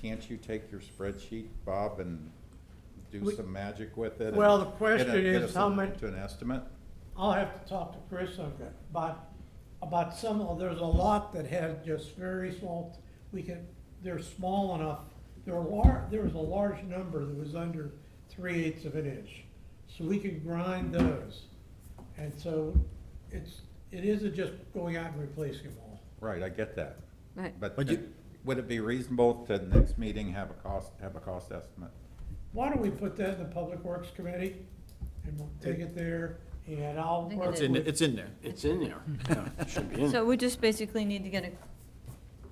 can't you take your spreadsheet, Bob, and do We- some magic with it? and Well, the get a- question get is us how a- much- To an estimate? I'll have to talk to Chris Okay. about, about some, of there's a lot that had just very small, we could, they're small enough. There were lar, there was a large number that was under three eighths of an inch, so we could grind those. And so it's, it isn't just going out and replacing them all. Right, I get that. Right. But But you- then would it be reasonable to the next meeting have a cost, have a cost estimate? Why don't we put that in the Public Works Committee and we'll take it there and I'll think work it It's in, with- it's in there. It's in there. Yeah, it should be in. there. So we just basically need to get a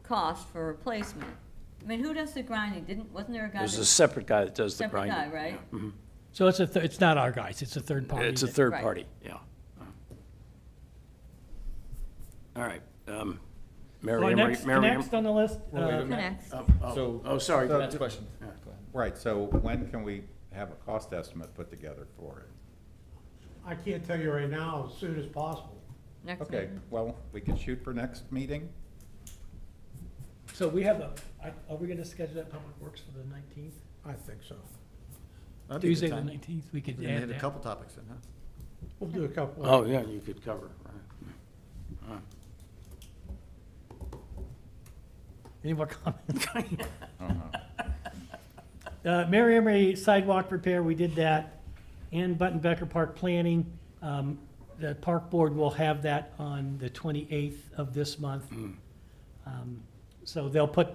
cost for replacement. I mean, who does the grinding? Didn't, wasn't there a guy? There's a that- separate guy that does the Separate grinding. guy, right? yeah. Mhm. So it's a, th- it's not our guys, it's a third party. It's a that- third Right. party, yeah. All right. um, Mary Well, Ann, next, Mary Ann- next on the list, Well, wait a uh, minute. Connects. Oh, So- oh, oh, sorry. So- Matt's question. Go ahead. Right, so when can we have a cost estimate put together for it? I can't tell you right now, as soon as possible. Next Okay, meeting. well, we can shoot for next meeting? so we have a, I- are we gonna schedule that public works for the nineteenth? I think so. That'd be a good Tuesday the time. nineteenth, we could We add had a that. couple topics in, huh? We'll do a couple. Oh, yeah, you could cover, right. Any more comments? Uh-huh. Uh, Mary Emery sidewalk repair, we did that, and Button Becker Park planning. Um, the park board will have that on the twenty-eighth of this month. Um, So they'll put,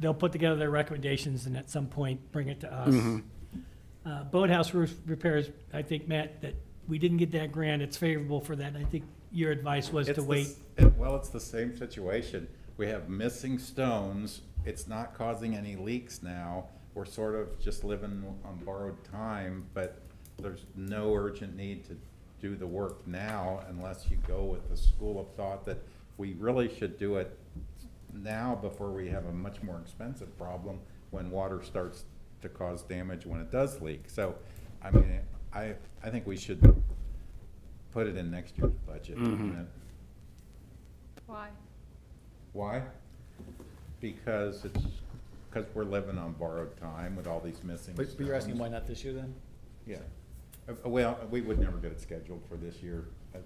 they'll put together their recommendations and at some point bring it to us. Uh, boathouse roof repairs, I think, Matt, that we didn't get that grant, it's favorable for that, and I think your advice was It's to the wait. s- it- Well, it's the same situation. We have missing stones. It's not causing any leaks now. We're sort of just living on borrowed time, but there's no urgent need to do the work now unless you go with the school of thought that we really should do it now before we have a much more expensive problem when water starts to cause damage when it does leak. So, I mean, I, I think we should put it in next year's budget. Why? Why? Because it's, because we're living on borrowed time with all these missing But but you're asking why stones. not this year then? Yeah. Uh, Well, we would never get it scheduled for this year. Uh,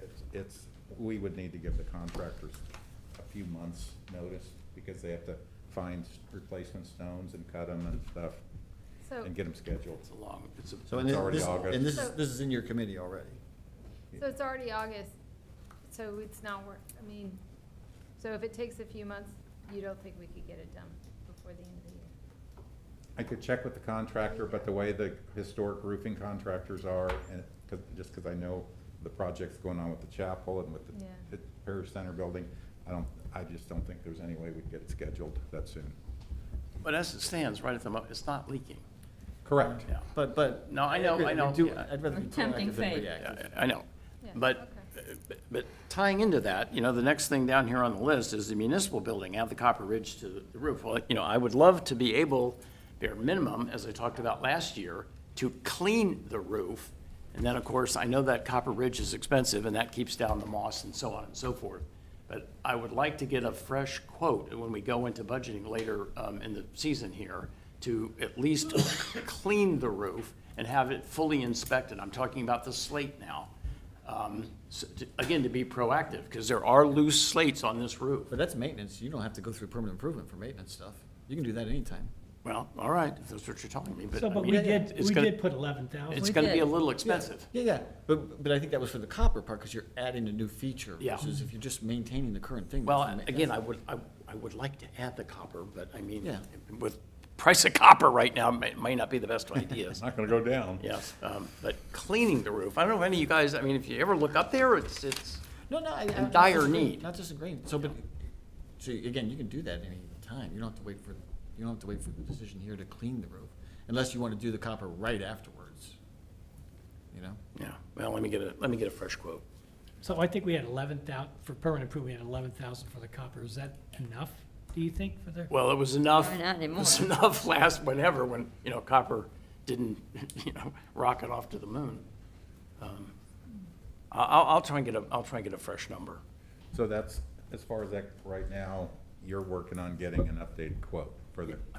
It's, it's, we would need to give the contractors a few months' notice because they have to find s- replacement stones and cut them and stuff So, and get them scheduled. It's a long, it's a. So and It's this- already this- August. And this is, So- this is in your committee already. so it's already August, so it's not work, I mean, so if it takes a few months, you don't think we could get it done before the end of the year? I could check with the contractor, but the way the historic roofing contractors are, and, cause, just cause I know the projects going on with the chapel and with Yeah. the parish center building, I don't, I just don't think there's any way we'd get it scheduled that soon. But as it stands, right at the moment, it's not leaking. Correct. Yeah. But, but. No, I know, I I'd rather know, do- yeah. I'd rather be Tempting proactive than fate. reactive. Yeah, I I know. Yeah, But, but- but tying into that, you know, the next thing down here on the list is the municipal building, add the copper ridge to the roof. Well, you know, I would love to be able, bare minimum, as I talked about last year, to clean the roof. And then, of course, I know that copper ridge is expensive, and that keeps down the moss and so on and so forth. But I would like to get a fresh quote when we go into budgeting later um, in the season here to at least clean the roof and have it fully inspected. I'm talking about the slate now. Um, so to- Again, to be proactive, because there are loose slates on this roof. But that's maintenance. You don't have to go through permanent improvement for maintenance stuff. You can do that anytime. Well, all right, if that's what you're telling me, but. So, I but we mean, did, it's we gonna- did put eleven thousand. It's We gonna be did. a little expensive. Yeah, yeah, but, but I think that was for the copper part, because you're adding a new feature. Yeah. Versus if you're just maintaining the current thing. Well, that's- again, I would, I, I would like to add the copper, but I mean, Yeah. with price of copper right now, may, may not be the best idea. It's not gonna go down. Yes, um, but cleaning the roof, I don't know if any of you guys, I mean, if you ever look up there, it's, it's, No, no, I. I- in not dire disagreeing, need. Not disagreeing, so, but, so again, you can do that any time, you don't have to wait for, you don't have to wait for the decision here to clean the roof, unless you wanna do the copper right afterwards, you know? yeah, well, let me get a, let me get a fresh quote. So I think we had eleven thousand, for permanent improvement, we had eleven thousand for the copper. Is that enough, do you think, for the? Well, it was enough. Why not anymore? It was enough last whenever, when, you know, copper didn't, you know, rocket off to the moon. Um, I- I'll, I'll try and get a, I'll try and get a fresh number. So that's, as far as that, right now, you're working on getting an updated quote for the